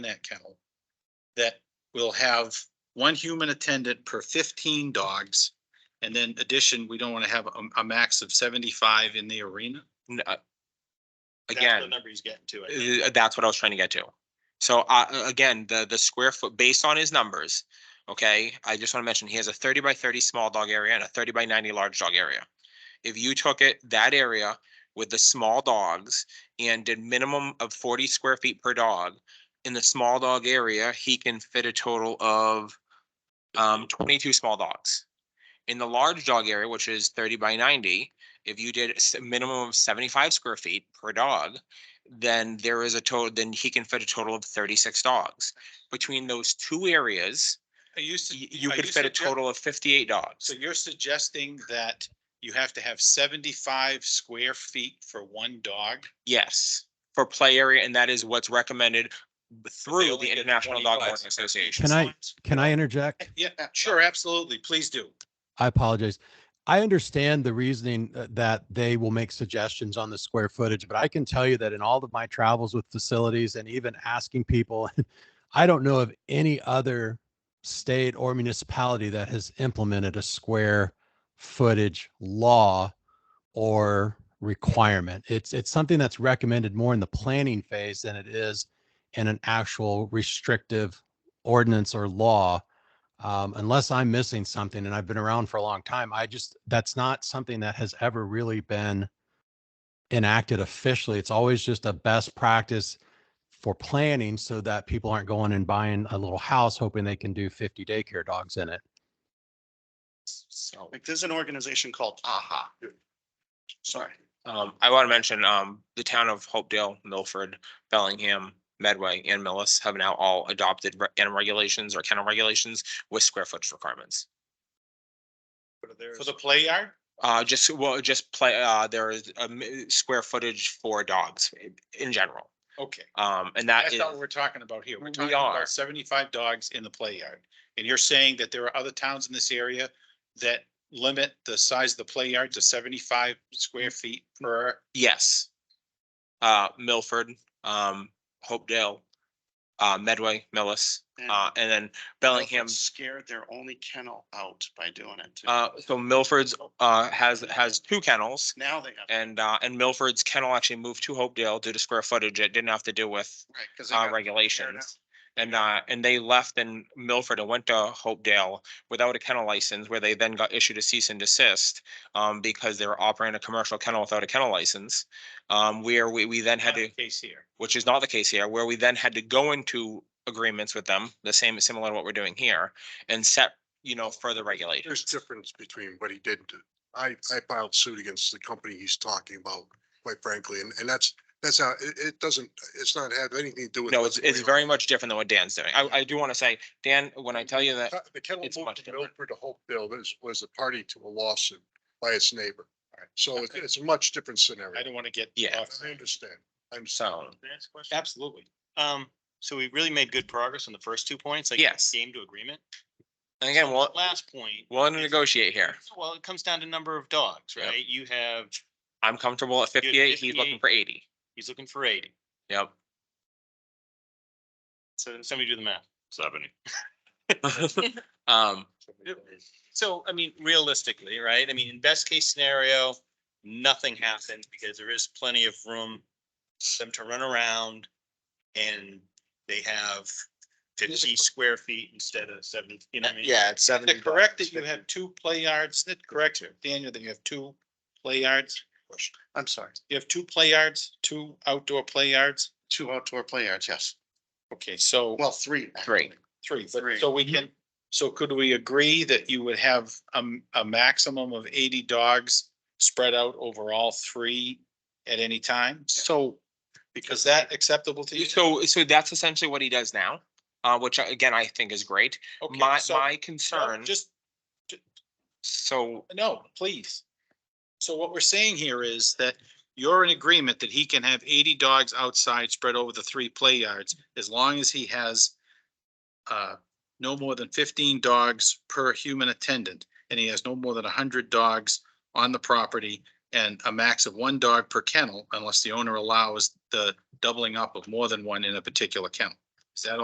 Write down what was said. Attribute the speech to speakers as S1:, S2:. S1: that kennel that will have one human attendant per fifteen dogs. And then addition, we don't want to have a, a max of seventy-five in the arena.
S2: N- uh,
S3: That's the
S2: Again,
S3: number he's getting to. I think.
S2: uh, that's what I was trying to get to. So uh, again, the, the square foot, based on his numbers, okay, I just want to mention, he has a thirty by thirty small dog area and a thirty by ninety large dog area. If you took it, that area with the small dogs and did minimum of forty square feet per dog, in the small dog area, he can fit a total of um, twenty-two small dogs. In the large dog area, which is thirty by ninety, if you did a s- minimum of seventy-five square feet per dog, then there is a total, then he can fit a total of thirty-six dogs. Between those two areas,
S1: I used
S2: y- you could fit a total of fifty-eight dogs.
S1: So you're suggesting that you have to have seventy-five square feet for one dog?
S2: Yes, for play area, and that is what's recommended through
S1: only
S2: the
S1: get
S2: International
S1: 25
S2: Dog Boarding Association.
S4: Can I, can I interject?
S1: Yeah, uh, sure, absolutely. Please do.
S4: I apologize. I understand the reasoning uh, that they will make suggestions on the square footage, but I can tell you that in all of my travels with facilities and even asking people, I don't know of any other state or municipality that has implemented a square footage law or requirement. It's, it's something that's recommended more in the planning phase than it is in an actual restrictive ordinance or law um, unless I'm missing something and I've been around for a long time, I just, that's not something that has ever really been enacted officially. It's always just a best practice for planning so that people aren't going and buying a little house hoping they can do 50 daycare dogs in it.
S2: So.
S3: Like, there's an organization called AHA. Sorry.
S2: Um, I want to mention, um, the town of Hopedale, Milford, Bellingham, Medway and Millis have now all adopted re- animal regulations or kennel regulations with square footage requirements.
S1: For the play yard?
S2: Uh, just, well, just play, uh, there is a mi- square footage for dogs i- in general.
S1: Okay,
S2: Um, and that
S1: that's
S2: is,
S1: not what we're talking about here. We're
S2: We
S1: talking
S2: are.
S1: about seventy-five dogs in the play yard. And you're saying that there are other towns in this area that limit the size of the play yard to seventy-five square feet per,
S2: yes. Uh, Milford, um, Hopedale, uh, Medway, Millis, uh,
S1: Mm.
S2: and then Bellingham,
S3: Scared their only kennel out by doing it. too.
S2: uh, so Milford's, uh, has, has two kennels.
S3: Now they have,
S2: And uh, and Milford's kennel actually moved to Hopedale due to square footage. It didn't have to do with
S3: right, because they
S2: uh,
S3: got
S2: regulations. And uh, and they left in Milford and went to Hopedale without a kennel license, where they then got issued a cease and desist. Um, because they were operating a commercial kennel without a kennel license. Um, where we we then had
S1: not
S2: to,
S1: the case here.
S2: which is not the case here, where we then had to go into agreements with them, the same, similar to what we're doing here. And set, you know, further regulations.
S5: There's difference between what he did. and did. I, I filed suit against the company he's talking about, quite frankly, and, and that's, that's how, it, it doesn't, it's not have anything to do with.
S2: No,
S5: what's
S2: it's it's
S5: going
S2: very much different than what Dan's doing. I I do want to say, Dan, when I tell you that.
S5: on. The kennel
S2: it's
S5: moved
S2: much
S5: from
S2: different.
S5: Milford to Hopeville was, was a party to a lawsuit by its neighbor. So it's, it's a much different scenario.
S1: I don't want to get.
S2: Yeah.
S1: off- Um,
S5: I understand. I'm sorry.
S2: So,
S3: Next question.
S1: Absolutely.
S3: Um, so we really made good progress on the first two points, like.
S2: Yes.
S3: Game to agreement.
S2: and again, we'll,
S3: Last point,
S2: we'll negotiate here.
S3: well, it comes down to number of dogs,
S2: Yep.
S3: right? You have,
S2: I'm comfortable at
S3: You're
S2: fifty-eight, he's
S3: 58.
S2: looking for eighty.
S3: he's looking for eighty,
S2: Yep.
S3: so somebody do the math. Seventy.
S2: Um,
S3: So, I mean, realistically, right? I mean, in best case scenario, nothing happens because there is plenty of room for them to run around and they have fifty square feet instead of seven, you know what I mean?
S2: yeah, it's
S1: Is
S2: seventy.
S1: it correct that you have two play yards? Is it correct, Daniel, that you have two play yards?
S3: I'm sorry,
S1: You have two play yards, two outdoor play yards?
S3: two outdoor play yards, yes.
S1: Okay, so.
S3: Well, three.
S2: Three.
S1: Three, but
S3: Three.
S1: so we can, so could we agree that you would have a, a maximum of eighty dogs spread out over all three at any time? So, is that acceptable to you?
S2: So, so that's essentially what he does now, uh, which I- again, I think is great.
S1: Okay,
S2: My,
S1: so-
S2: my
S1: no,
S2: concern,
S1: Just,
S2: so,
S1: no, please. So what we're saying here is that you're in agreement that he can have eighty dogs outside spread over the three play yards as long as he has uh, no more than fifteen dogs per human attendant, and he has no more than hundred dogs on the property and a max of one dog per kennel unless the owner allows the doubling up of more than one in a particular kennel. Is that all?